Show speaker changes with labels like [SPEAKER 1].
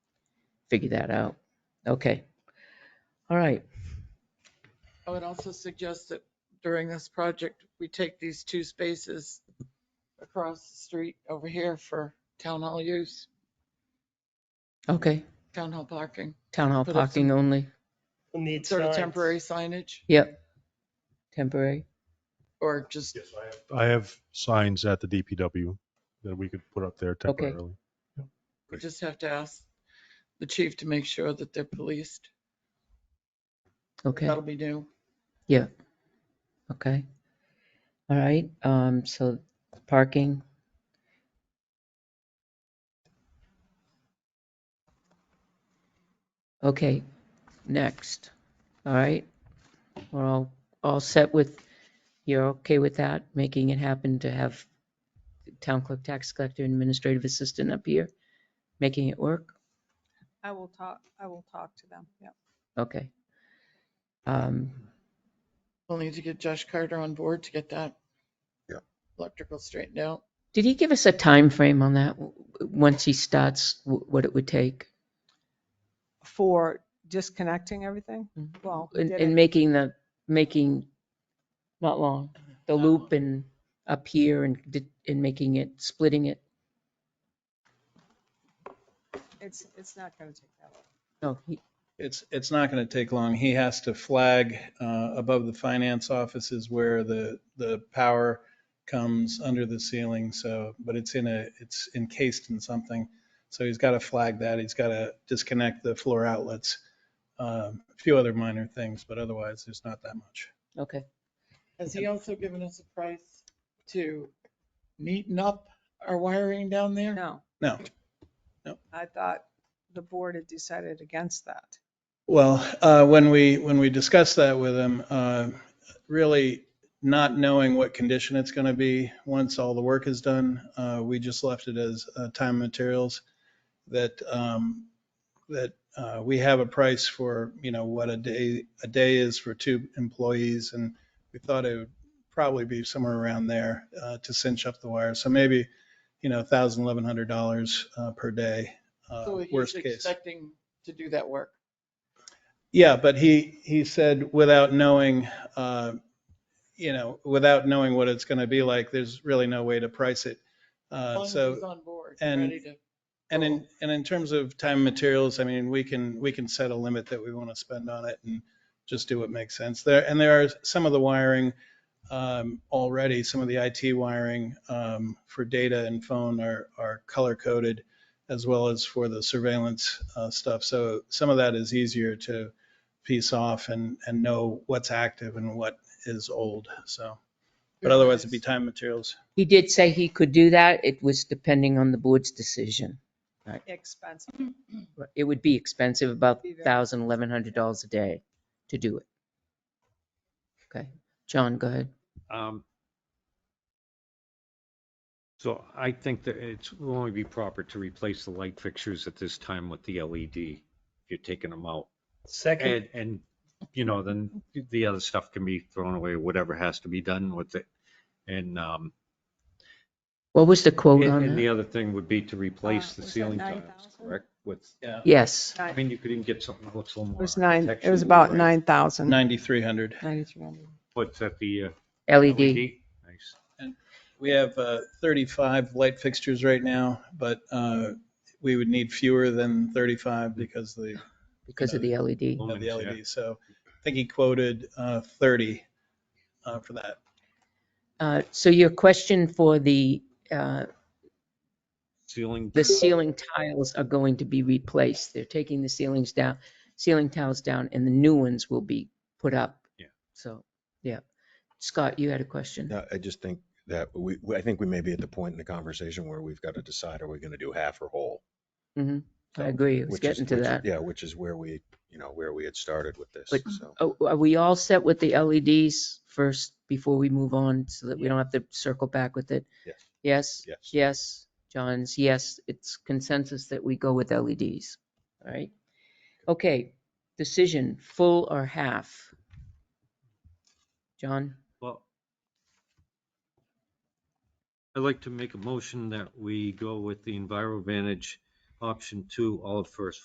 [SPEAKER 1] figure that out. Okay. All right.
[SPEAKER 2] I would also suggest that during this project, we take these two spaces across the street over here for town hall use,
[SPEAKER 1] Okay.
[SPEAKER 2] town hall parking,
[SPEAKER 1] Town hall
[SPEAKER 2] Put up some-
[SPEAKER 1] parking only.
[SPEAKER 3] We'll need
[SPEAKER 2] sort of
[SPEAKER 3] signs.
[SPEAKER 2] temporary signage
[SPEAKER 1] Yep. Temporary.
[SPEAKER 2] or just,
[SPEAKER 4] Yes, I have. I have signs at the DPW that we could put up there
[SPEAKER 1] Okay.
[SPEAKER 4] temporarily.
[SPEAKER 2] we just have to ask the chief to make sure that they're policed.
[SPEAKER 1] Okay.
[SPEAKER 2] That'll be new.
[SPEAKER 1] Okay. All right. Um, so parking. Okay, next. All right. We're all, all set with, you're okay with that? Making it happen to have the town clerk, tax collector, and administrative assistant up here? Making it work?
[SPEAKER 5] I will talk, I will talk to them, yeah.
[SPEAKER 1] Okay. Um,
[SPEAKER 2] We'll need to get Josh Carter on board to get that.
[SPEAKER 6] Yeah.
[SPEAKER 2] Electrical straightened out.
[SPEAKER 1] Did he give us a time frame on that? w- w- Once he starts, w- what it would take?
[SPEAKER 5] For disconnecting everything?
[SPEAKER 1] Mhm.
[SPEAKER 5] Well, we
[SPEAKER 1] And,
[SPEAKER 5] did
[SPEAKER 1] and
[SPEAKER 5] it-
[SPEAKER 1] making the, making, not long, the
[SPEAKER 2] Not
[SPEAKER 1] loop
[SPEAKER 2] long.
[SPEAKER 1] and up here and, di- and making it, splitting it.
[SPEAKER 5] it's, it's not going to take that long.
[SPEAKER 1] No, he-
[SPEAKER 7] It's, it's not going to take long. He has to flag uh, above the finance offices where the, the power comes under the ceiling. So, but it's in a, it's encased in something. So he's got to flag that. He's got to disconnect the floor outlets. um, A few other minor things, but otherwise there's not that much.
[SPEAKER 1] okay.
[SPEAKER 2] Has he also given us a price to neaten up our wiring down there?
[SPEAKER 5] No.
[SPEAKER 7] No. No.
[SPEAKER 5] I thought the board had decided against that.
[SPEAKER 7] Well, uh, when we, when we discussed that with him, uh, really not knowing what condition it's going to be once all the work is done, uh, we just left it as uh, time and materials that, um, that uh, we have a price for, you know, what a day, a day is for two employees. And we thought it would probably be somewhere around there uh, to cinch up the wire. So maybe, you know, $1,000, $1,100 uh, per day, uh,
[SPEAKER 2] So
[SPEAKER 7] worst
[SPEAKER 2] he's
[SPEAKER 7] case.
[SPEAKER 2] expecting to do that work.
[SPEAKER 7] Yeah, but he, he said without knowing, uh, you know, without knowing what it's going to be like, there's really no way to price it.
[SPEAKER 2] As long as
[SPEAKER 7] Uh,
[SPEAKER 2] he's
[SPEAKER 7] So,
[SPEAKER 2] on board,
[SPEAKER 7] and-
[SPEAKER 2] ready to.
[SPEAKER 7] and in, and in terms of time and materials, I mean, we can, we can set a limit that we want to spend on it and just do what makes sense there. And there are some of the wiring um, already, some of the IT wiring um, for data and phone are, are color coded as well as for the surveillance uh, stuff. So some of that is easier to piece off and, and know what's active and what is old. So, but otherwise it'd be time and materials.
[SPEAKER 1] He did say he could do that. It was depending on the board's decision.
[SPEAKER 5] Expensive.
[SPEAKER 1] It would be expensive, about
[SPEAKER 5] Be very-
[SPEAKER 1] thousand, eleven hundred dollars a day to do it. Okay, John, go ahead.
[SPEAKER 8] Um, So I think that it's will only be proper to replace the light fixtures at this time with the LED. If you're taking them out
[SPEAKER 3] Second,
[SPEAKER 8] and, and, you know, then the other stuff can be thrown away, whatever has to be done with it. And, um,
[SPEAKER 1] What was the quote
[SPEAKER 8] and
[SPEAKER 1] on
[SPEAKER 8] and the
[SPEAKER 1] that?
[SPEAKER 8] other thing would be to replace the
[SPEAKER 5] Uh, was that
[SPEAKER 8] ceiling tiles,
[SPEAKER 5] 9,000?
[SPEAKER 8] correct? With,
[SPEAKER 7] Yeah.
[SPEAKER 1] Yes,
[SPEAKER 8] I mean, you could even get something that looks a little
[SPEAKER 5] It
[SPEAKER 8] more.
[SPEAKER 5] was nine, it was
[SPEAKER 8] architectural,
[SPEAKER 5] about
[SPEAKER 8] right?
[SPEAKER 5] 9,000.
[SPEAKER 7] 9,300.
[SPEAKER 5] 9,300.
[SPEAKER 8] What's at the uh,
[SPEAKER 1] LED.
[SPEAKER 8] LED? Nice.
[SPEAKER 7] We have uh, 35 light fixtures right now, but uh, we would need fewer than 35 because the,
[SPEAKER 1] Because of the E LED.
[SPEAKER 7] of
[SPEAKER 8] Lumens,
[SPEAKER 7] the
[SPEAKER 8] yeah.
[SPEAKER 7] LED. So I think he quoted uh, 30 uh, for that.
[SPEAKER 1] Uh, So your question for the, uh,
[SPEAKER 8] Ceiling.
[SPEAKER 1] the ceiling tiles are going to be replaced. They're taking the ceilings down, ceiling tiles down, and the new ones will be put up.
[SPEAKER 8] Yeah.
[SPEAKER 1] So, yeah. Scott, you had a question?
[SPEAKER 6] No, I just think that we, we- I think we may be at the point in the conversation where we've got to decide, are we going to do half or whole?
[SPEAKER 1] Mhm. I agree. It's
[SPEAKER 6] Which is-
[SPEAKER 1] getting to
[SPEAKER 6] which-
[SPEAKER 1] that.
[SPEAKER 6] Yeah, which is where we, you know, where we had started with this.
[SPEAKER 1] But-
[SPEAKER 6] So
[SPEAKER 1] Oh, Are we all set with the LEDs first before we move on so that we don't have to circle back with it?
[SPEAKER 6] Yes.
[SPEAKER 1] Yes?
[SPEAKER 6] Yes.
[SPEAKER 1] Yes. John's, yes. It's consensus that we go with LEDs. All right. Okay. Decision, full or half? John?
[SPEAKER 8] Well, I'd like to make a motion that we go with the EnviroVantage option two, all at first